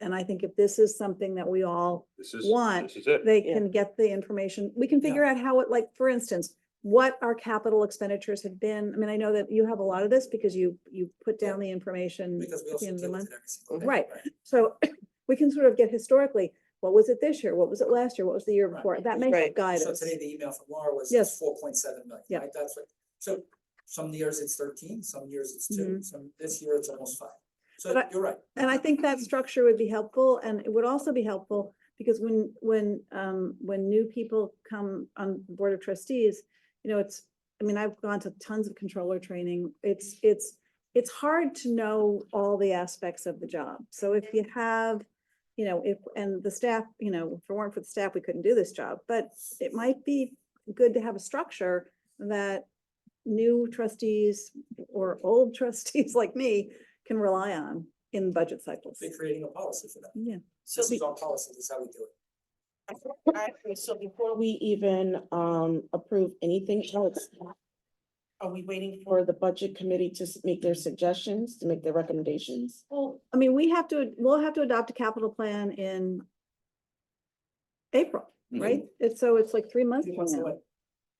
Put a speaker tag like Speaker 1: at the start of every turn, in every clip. Speaker 1: And I think if this is something that we all
Speaker 2: This is,
Speaker 1: want,
Speaker 2: this is it.
Speaker 1: they
Speaker 3: Yeah.
Speaker 1: can get the information. We can
Speaker 3: Yeah.
Speaker 1: figure out how it, like, for instance, what our capital expenditures have been. I mean, I know that you have a lot of this because you, you put down the information
Speaker 4: Because
Speaker 1: at
Speaker 4: we
Speaker 1: the
Speaker 4: also
Speaker 1: end of the
Speaker 4: deal with
Speaker 1: month.
Speaker 4: it every single day.
Speaker 1: Right. So we can sort of get historically, what was it this year? What was it last year? What was the year
Speaker 4: Right.
Speaker 1: before? That may help
Speaker 3: Right.
Speaker 1: guide
Speaker 4: So
Speaker 1: us.
Speaker 4: today, the email from Laura was
Speaker 1: Yes.
Speaker 4: four point seven million,
Speaker 1: Yeah.
Speaker 4: right? That's what, so some years it's thirteen, some years it's two,
Speaker 1: Mhm.
Speaker 4: some, this year it's almost five. So
Speaker 1: But I-
Speaker 4: you're right.
Speaker 1: And I think that structure would be helpful and it would also be helpful because when, when, um, when new people come on the Board of Trustees, you know, it's, I mean, I've gone to tons of controller training. It's, it's, it's hard to know all the aspects of the job. So if you have, you know, if, and the staff, you know, if it weren't for the staff, we couldn't do this job, but it might be good to have a structure that new trustees or old trustees like me can rely on in budget cycles.
Speaker 4: They're creating a policy for that.
Speaker 1: Yeah,
Speaker 3: So
Speaker 4: This
Speaker 3: be-
Speaker 4: is our policy, this is how we do it.
Speaker 3: Alright, So before we even um approve anything else, are we waiting for the budget committee to s- make their suggestions, to make their recommendations?
Speaker 1: well, I mean, we have to, we'll have to adopt a capital plan in April,
Speaker 2: Mm-hmm. Hmm.
Speaker 1: right? It's, so it's like three months
Speaker 4: Two
Speaker 1: from
Speaker 4: months
Speaker 1: now.
Speaker 4: away.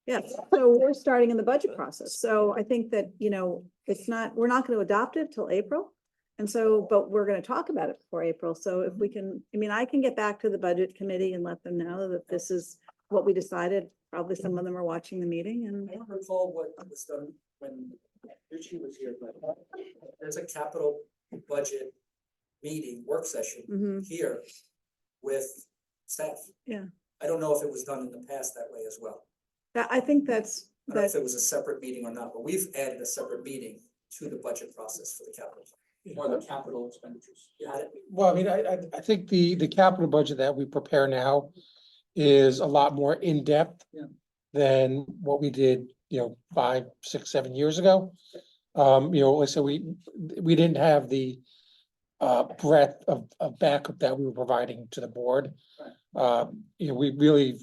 Speaker 1: Yeah, so we're starting in the budget process. So I think that, you know, it's not, we're not going to adopt it till April. And so, but we're going to talk about it before April. So if we can, I mean, I can get back to the budget committee and let them know that this is what we decided. Probably some of them are watching the meeting and
Speaker 4: I don't recall what was done when Richie was here, but there's a capital budget meeting, work session
Speaker 1: Mhm.
Speaker 4: here with staff.
Speaker 1: Yeah.
Speaker 4: I don't know if it was done in the past that way as well.
Speaker 1: that, I think that's,
Speaker 4: I don't know
Speaker 1: that's
Speaker 4: if it was a separate meeting or not, but we've added a separate meeting to the budget process for the capital. plan, Or the capital expenditures. You had it?
Speaker 5: Well, I mean, I, I, I think the, the capital budget that we prepare now is a lot more in-depth
Speaker 4: Yeah.
Speaker 5: than what we did, you know, five, six, seven years ago. Um, you know, like I said, we, we didn't have the uh, breadth of, of backup that we were providing to the board. Um, you know, we really,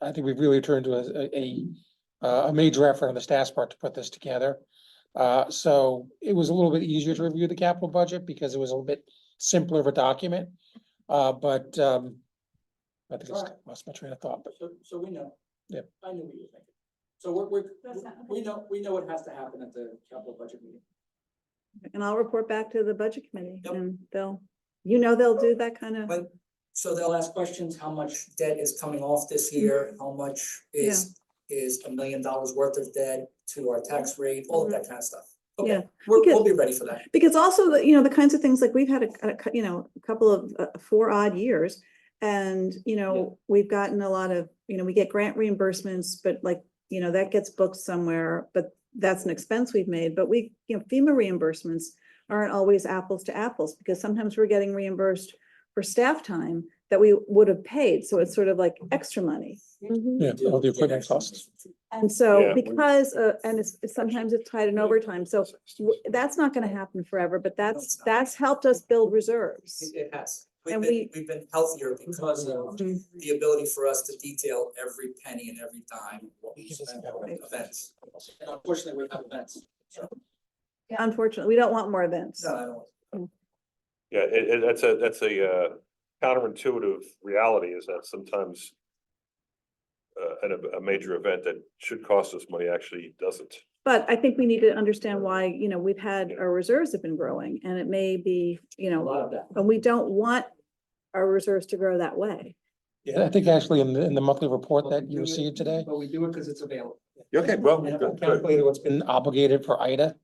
Speaker 5: I think we've really turned to a, a, uh, a major effort on the staff's part to put this together. Uh, so it was a little bit easier to review the capital budget because it was a little bit simpler of a document. Uh, but, um, I think it's
Speaker 4: Alright.
Speaker 5: lost my train of thought, but
Speaker 4: So, so we know.
Speaker 5: Yep.
Speaker 4: I knew what you were thinking. So we're, we're,
Speaker 1: That's not-
Speaker 4: we know, we know what has to happen at the capital budget meeting.
Speaker 1: And I'll report back to the budget committee
Speaker 4: Yep.
Speaker 1: and they'll, you know, they'll do that kind of,
Speaker 4: But- So they'll ask questions, how much debt is coming off this
Speaker 1: Mm-hmm.
Speaker 4: year, how much is, is a million dollars worth of debt to our tax rate, all of that kind of stuff.
Speaker 1: Mm-hmm. yeah.
Speaker 4: Okay, we're, we'll be ready for that.
Speaker 1: Because also, the- you know, the kinds of things like we've had a, a cou- you know, a couple of uh, four odd years. And, you know, we've gotten a lot of, you know, we get grant reimbursements, but like, you know, that gets booked somewhere, but that's an expense we've made. But we, you know, FEMA reimbursements aren't always apples to apples because sometimes we're getting reimbursed for staff time that we would have paid. So it's sort of like extra money.
Speaker 6: Mm-hmm.
Speaker 5: yeah,
Speaker 4: Do
Speaker 5: all the
Speaker 4: get
Speaker 5: equipment
Speaker 4: extra
Speaker 5: costs.
Speaker 4: information.
Speaker 1: And so
Speaker 2: Yeah.
Speaker 1: because, uh, and it's, it's sometimes it's tied in overtime, so w- that's not gonna happen forever, but that's,
Speaker 4: it's not.
Speaker 1: that's helped us build reserves.
Speaker 4: It it has. We've
Speaker 1: And
Speaker 4: been,
Speaker 1: we-
Speaker 4: we've been healthier because of
Speaker 1: Mhm.
Speaker 4: the ability for us to detail every penny and every dime what we spend on
Speaker 5: Right.
Speaker 4: events. And unfortunately, we have events. So,
Speaker 1: Unfortunately, we don't want more events.
Speaker 4: no, I don't.
Speaker 2: Yeah, it, it, that's a, that's a, uh, counterintuitive reality is that sometimes uh, an, a major event that should cost us money actually doesn't.
Speaker 1: But I think we need to understand why, you know, we've had, our reserves have been growing and it may be, you
Speaker 4: A
Speaker 1: know,
Speaker 4: lot of that.
Speaker 1: and we don't want our reserves to grow that way.
Speaker 5: Yeah, I think actually in the, in the monthly report that you received today,
Speaker 4: But we do it because it's available.
Speaker 2: Okay, well,
Speaker 5: we
Speaker 2: good,
Speaker 5: have
Speaker 2: good.
Speaker 5: calculated what's been obligated for Ida.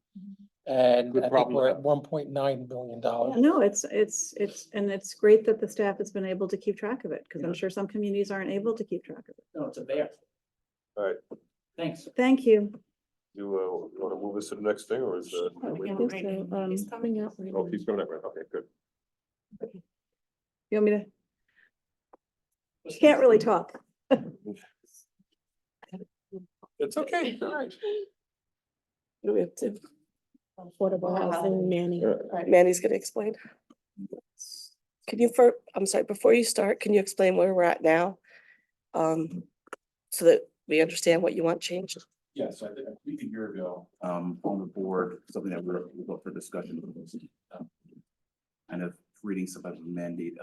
Speaker 5: And
Speaker 2: Good
Speaker 5: I think
Speaker 2: problem.
Speaker 5: we're at one point nine billion dollars.
Speaker 1: No, it's, it's, it's, and it's great that the staff has been able to keep track of it, because I'm sure some communities aren't able to keep track of it.
Speaker 4: No, it's available.
Speaker 2: All right,
Speaker 4: Thanks.
Speaker 1: Thank you.
Speaker 2: you, uh, you wanna move us to the next thing or is, uh? are we-
Speaker 3: I think
Speaker 6: uh,
Speaker 3: so, um, It's coming up.
Speaker 2: Oh, he's coming up, right, okay, good.
Speaker 1: You want me to? She can't really talk.
Speaker 2: It's okay, all right.
Speaker 6: Do we have to?
Speaker 3: Affordable housing, Manny.
Speaker 2: Yeah.
Speaker 6: All right, Mandy's gonna explain. Can you for, I'm sorry, before you start, can you explain where we're at now? Um, so that we understand what you want changed?
Speaker 7: Yeah, so I think I think a year ago, um, on the board, something that we're, we're up for discussion. um, Kind of creating some type of mandate